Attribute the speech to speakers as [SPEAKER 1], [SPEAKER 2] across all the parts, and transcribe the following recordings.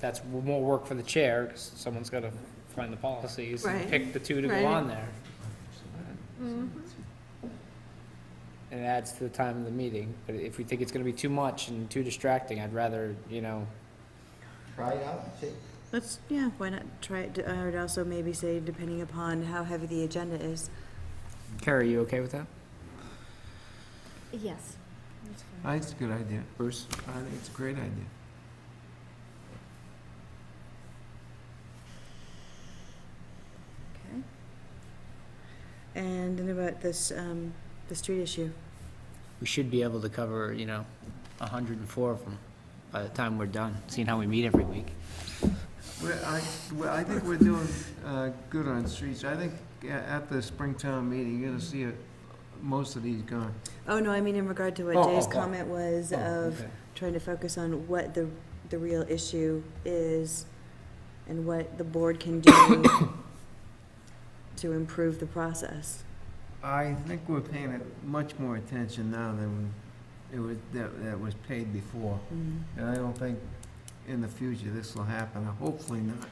[SPEAKER 1] that's more work for the chair, because someone's gotta find the policies and
[SPEAKER 2] Right.
[SPEAKER 1] pick the two to go
[SPEAKER 2] Right.
[SPEAKER 1] on there.
[SPEAKER 2] Mm-hmm.
[SPEAKER 1] And it adds to the time of the meeting, but if we think it's gonna be too much and too distracting, I'd rather, you know,
[SPEAKER 3] Try it out, see.
[SPEAKER 2] Let's, yeah, why not try it? I would also maybe say, depending upon how heavy the agenda is.
[SPEAKER 1] Carrie, you okay with that?
[SPEAKER 4] Yes.
[SPEAKER 5] I think it's a good idea.
[SPEAKER 1] Bruce?
[SPEAKER 5] I think it's a great idea.
[SPEAKER 2] Okay. And then about this, um, the street issue.
[SPEAKER 1] We should be able to cover, you know, a hundred and four of them by the time we're done, seeing how we meet every week.
[SPEAKER 5] Well, I, well, I think we're doing, uh, good on streets. I think a- at the Springtown meeting, you're gonna see it, most of these gone.
[SPEAKER 2] Oh, no, I mean in regard to
[SPEAKER 1] Oh,
[SPEAKER 2] what Jay's
[SPEAKER 1] oh, oh.
[SPEAKER 2] comment was of trying to focus on what the, the real issue is and what the board can do to improve the process.
[SPEAKER 5] I think we're paying it much more attention now than it was, that, that was paid before.
[SPEAKER 2] Mhm.
[SPEAKER 5] And I don't think in the future this will happen, hopefully not.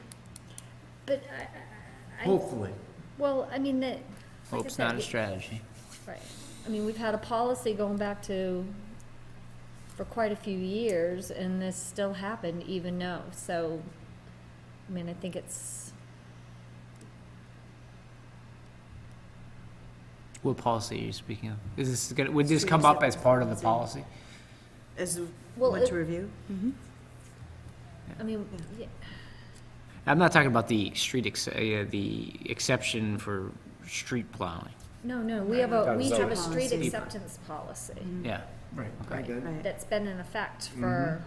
[SPEAKER 4] But I- I, I,
[SPEAKER 5] Hopefully.
[SPEAKER 4] well, I mean, that, like I
[SPEAKER 1] Hope's not
[SPEAKER 4] said,
[SPEAKER 1] a
[SPEAKER 4] we-
[SPEAKER 1] strategy.
[SPEAKER 4] right. I mean, we've had a policy going back to, for quite a few years, and this still happened even though, so, I mean, I think it's,
[SPEAKER 1] What policy are you speaking of? Is this gonna, would this
[SPEAKER 2] Street
[SPEAKER 1] come up as part of the
[SPEAKER 2] acceptance
[SPEAKER 1] policy?
[SPEAKER 2] As
[SPEAKER 4] well,
[SPEAKER 2] what
[SPEAKER 4] it- mm-hmm.
[SPEAKER 2] to review?
[SPEAKER 4] I mean, yeah,
[SPEAKER 1] I'm not talking about the street, ex- uh, yeah, the exception for street plowing.
[SPEAKER 4] no, no, we have a,
[SPEAKER 1] Right.
[SPEAKER 4] we have a
[SPEAKER 2] Zoning.
[SPEAKER 4] street
[SPEAKER 2] Policy.
[SPEAKER 4] acceptance policy
[SPEAKER 1] Yeah,
[SPEAKER 5] Right.
[SPEAKER 1] Okay.
[SPEAKER 5] I got it.
[SPEAKER 2] Mm-hmm. Right. Mm-hmm.
[SPEAKER 4] that's been in effect for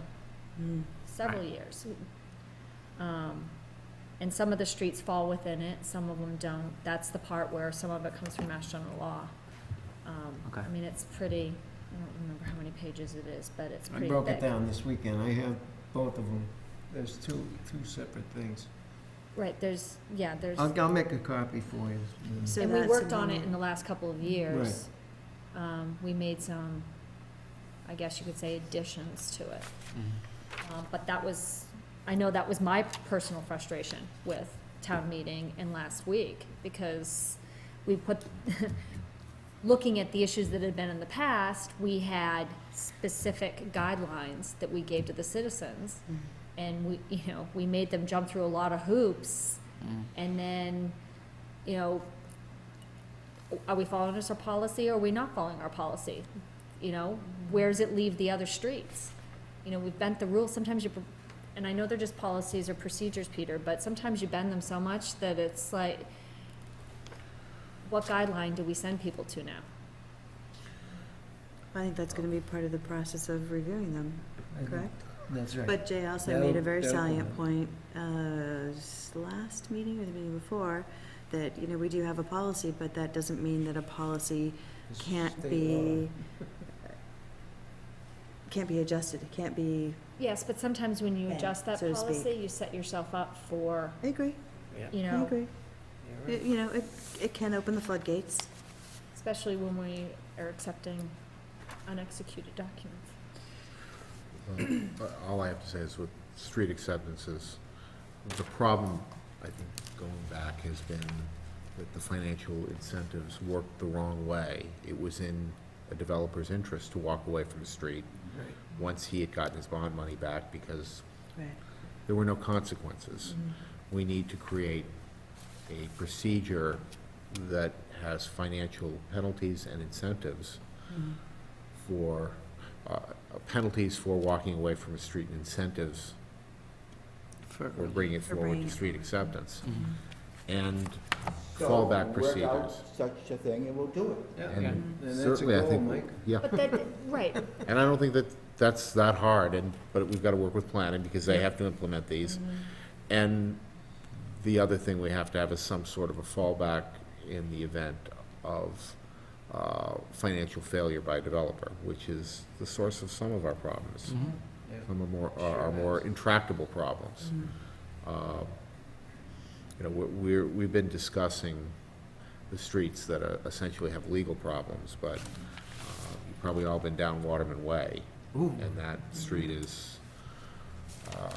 [SPEAKER 4] several years. Um, And some of the streets fall within it, some of them don't. That's the part where some of it comes from Mass General Law. Um, I
[SPEAKER 1] Okay.
[SPEAKER 4] mean, it's pretty, I don't remember how many pages it is, but it's
[SPEAKER 5] I
[SPEAKER 4] pretty thick.
[SPEAKER 5] broke it down this weekend. I have both of them. There's two, two separate things.
[SPEAKER 4] Right, there's, yeah, there's,
[SPEAKER 5] I'll, I'll make a copy for you. Mm.
[SPEAKER 2] So
[SPEAKER 4] and we
[SPEAKER 2] that's
[SPEAKER 4] worked on it
[SPEAKER 2] another-
[SPEAKER 4] in the last couple of years. Um, We made some, I guess you could say additions to it.
[SPEAKER 2] Mm-hmm.
[SPEAKER 4] Um, But that was, I know that was my personal frustration with town meeting and last week, because we put, looking at the issues that had been in the past, we had specific guidelines that we gave to the citizens.
[SPEAKER 2] Mm-hmm.
[SPEAKER 4] And we, you know, we made them jump through a lot of hoops,
[SPEAKER 1] Mm-hmm.
[SPEAKER 4] and then, you know, are we following this our policy, or are we not following our policy? You know, where does it leave the other streets? you know, we've bent the rules, sometimes you, pr- and I know they're just policies or procedures, Peter, but sometimes you bend them so much that it's like, what guideline do we send people to now?
[SPEAKER 2] I think that's gonna be part of the process of reviewing them,
[SPEAKER 5] I think
[SPEAKER 2] correct?
[SPEAKER 5] That's right.
[SPEAKER 2] But Mhm. Jay also made a very
[SPEAKER 5] That'll- that'll
[SPEAKER 2] salient point, uh, s- last meeting or the meeting before, that, you know, we do have a policy, but that doesn't mean that a policy
[SPEAKER 5] It's
[SPEAKER 2] can't
[SPEAKER 5] state
[SPEAKER 2] be, can't be adjusted, it can't be,
[SPEAKER 4] Yes, but sometimes when you
[SPEAKER 2] Bend,
[SPEAKER 4] adjust that
[SPEAKER 2] so to speak.
[SPEAKER 4] policy, you set yourself up for,
[SPEAKER 2] I agree,
[SPEAKER 4] you
[SPEAKER 2] I
[SPEAKER 4] know,
[SPEAKER 2] agree. It- You know, it, it can open the floodgates.
[SPEAKER 4] especially when we are accepting unexecuted documents.
[SPEAKER 6] Uh, All I have to say is with street acceptances, the problem, I think, going back has been that the financial incentives worked the wrong way. It was in a developer's interest to walk away from the street
[SPEAKER 5] Right.
[SPEAKER 6] once he had gotten his bond money back because
[SPEAKER 2] Right.
[SPEAKER 6] there were no consequences.
[SPEAKER 2] Mm-hmm.
[SPEAKER 6] We need to create a procedure that has financial penalties and incentives
[SPEAKER 2] Mm-hmm.
[SPEAKER 6] for, uh, penalties for walking away from a street and incentives
[SPEAKER 1] For-
[SPEAKER 6] for bringing it
[SPEAKER 2] For
[SPEAKER 6] forward
[SPEAKER 2] bringing
[SPEAKER 6] to
[SPEAKER 2] it
[SPEAKER 6] street acceptance.
[SPEAKER 1] Mm-hmm.
[SPEAKER 6] And
[SPEAKER 3] So,
[SPEAKER 6] fallback
[SPEAKER 3] we'll Work
[SPEAKER 6] procedures.
[SPEAKER 3] out such a thing and we'll do it.
[SPEAKER 5] Yeah,
[SPEAKER 6] And
[SPEAKER 5] Yeah. And that's a
[SPEAKER 6] certainly, I
[SPEAKER 5] goal,
[SPEAKER 6] think,
[SPEAKER 5] Mike.
[SPEAKER 6] yeah,
[SPEAKER 4] But that, right,
[SPEAKER 6] and I don't think that that's that hard, and, but we've got to work with planning because they have to implement these. And the other thing we have to have is some sort of a fallback in the event of uh, financial failure by a developer, which is the source of some of our problems.
[SPEAKER 1] Mm-hmm.
[SPEAKER 5] Yeah.
[SPEAKER 6] Some are more, are are more intractable problems.
[SPEAKER 2] Mm-hmm.
[SPEAKER 6] Uh, You know, we're- we're, we've been discussing the streets that are- essentially have legal problems, but uh, you've probably all been down Waterman Way,
[SPEAKER 5] Ooh.
[SPEAKER 6] and that street is, uh,